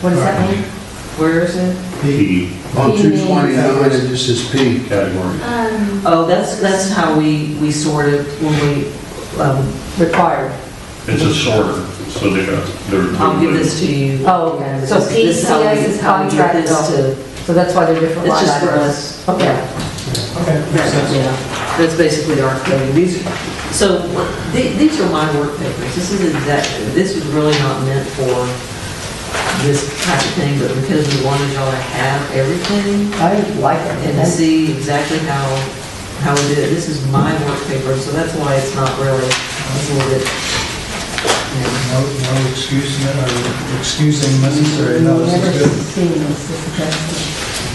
What does that mean? Where is it? P P on P means- 229, it just says P. Oh, category. Um, Oh, that's, that's how we, we sorted when we, um, required. It's a sorter, so they got, they're. I'll give this to you. Oh, okay. So This- this how we- PCS is how we give contract this to- So that's why they're different It's line just for items. us. Okay. Okay, makes sense. Yeah, that's basically our coding. These, so th- these are my work papers. This is exact, this is really not meant for this type of thing, but because we wanted y'all to have everything I like it. and to see exactly how, how we did it. This is my work paper, so that's why it's not really, it's a little bit, you No, know, no excuse, no excusing necessary, no, this is good.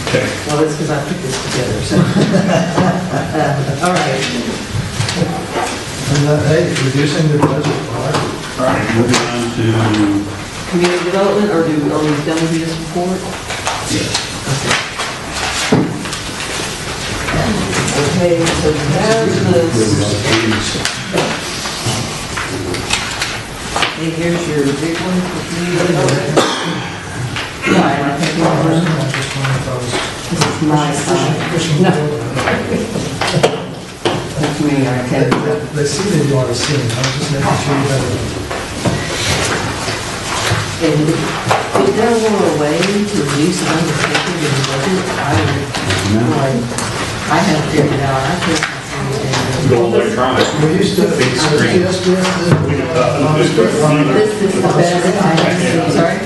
Okay. Well, that's because I put this together, so. Uh, All right, And that, hey, reducing the budget, all right. All right, moving on to, community development, or do, are we done with this report? yes, Okay, so there's the, and here's your big one for community development. Yeah, I think I we're- just wondered if I was this is my side. pushing No. the boat. That's me, I They- can't. they- They see that you are seeing, I'm just making sure you have And if there were a way to reduce the number of papers in the budget, I would, like, I have figured out, I could. go it. electronic. We used to, Big screen. yes, uh, We can talk about this. This is the best I have seen, sorry?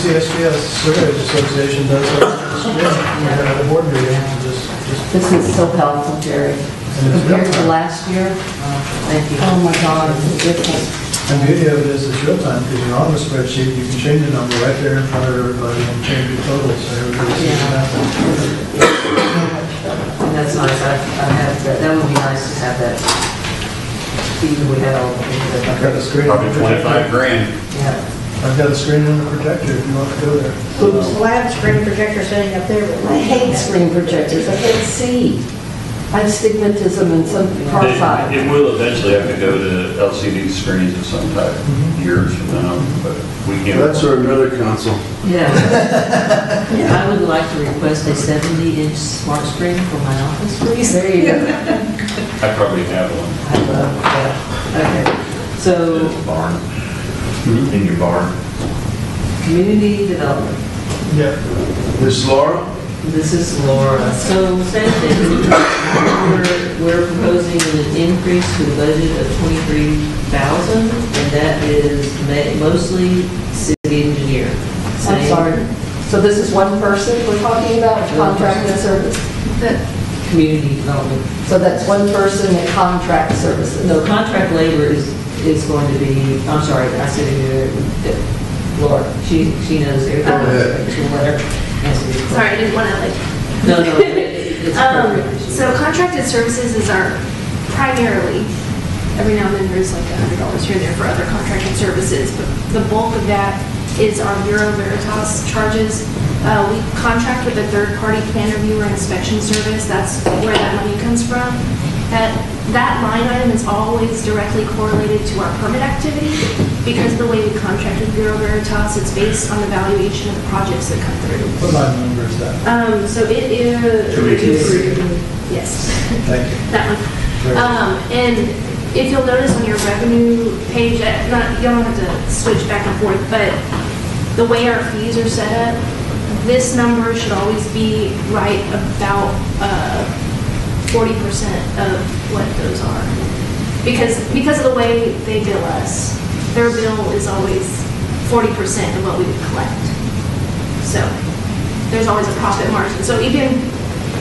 CSBS Surveyors Association does a screen, you know, at a board meeting, and just, just, This is so helpful, Jerry. And it's Compared to real-time. last year, Thank you. oh my God, it's different. The beauty of it is it's real time, because you're on the spreadsheet, you can change the number right there in front of everybody and change your total, so everybody sees Yeah. that. And That's nice, I, I have, that, that would be nice to have that. Even we had all the things I've got a that, screen. on the Probably projector. twenty-five grand. yeah. I've got a screen on the projector if you want to go there. Oops, lab screen projector sitting up there with my I hate screen projectors, I can't see. I have stigmatism and some far side. It will eventually have to go to LCD screens of some type years from now, but we can. That's our another council. Yeah. I would like to request a seventy inch smart screen for my office, please. There you go. I probably have one I love that. Okay, in so the barn, in your barn. community development, Yeah. Ms. Laura? this is Laura. So same thing, we're, we're proposing an increase to the budget of twenty-three thousand, and that is ma- mostly city engineer. I'm Same. sorry. So this is one person we're talking about, contract and service? community development. So that's one person at contract services? No, contract labor is, is going to be, I'm sorry, I said it, uh, Laura, she, she knows everything. She'll let her answer these Sorry, questions. I didn't want to like. No, no, it- it's Um, appropriate. So contracted services is our primarily, every now and then there's like a hundred dollars here and there for other contracted services, but the bulk of that is our Bureau Veritas charges. Uh, We contract with a third-party plan reviewer inspection service, that's where that money comes from. That, that line item is always directly correlated to our permit activity because the way we contract with Bureau Veritas, it's based on the valuation of the projects that come through. What line number is that? Um, so it is. Two weeks. Yes, Thank you. that one. Very good. Um, and if you'll notice on your revenue page, uh, not, you don't have to switch back and forth, but the way our fees are set up, this number should always be right about, uh, forty percent of what those are. Because, because of the way they bill us, their bill is always forty percent of what we would collect. So there's always a profit margin. So even,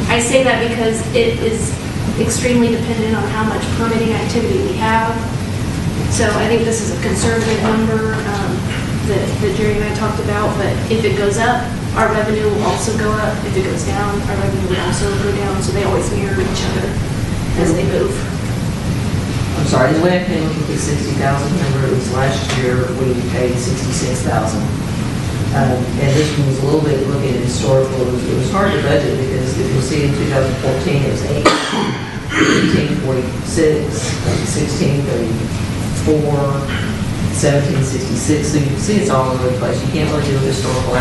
I say that because it is extremely dependent on how much permitting activity we have. So I think this is a conservative number um, that that Jerry and I talked about, but if it goes up, our revenue will also go up. If it goes down, our revenue will also go down, so they always mirror each other as they move. I'm sorry, the way I came up with the sixty thousand number, it was last year, we paid sixty-six thousand. Um, and this one was a little bit looking at historical, it was, it was hard to budget because if you'll see in two thousand fourteen, it was eight, eighteen forty-six, sixteen thirty-four, seventeen sixty-six, so you can see it's all over the place, you can't really do a historical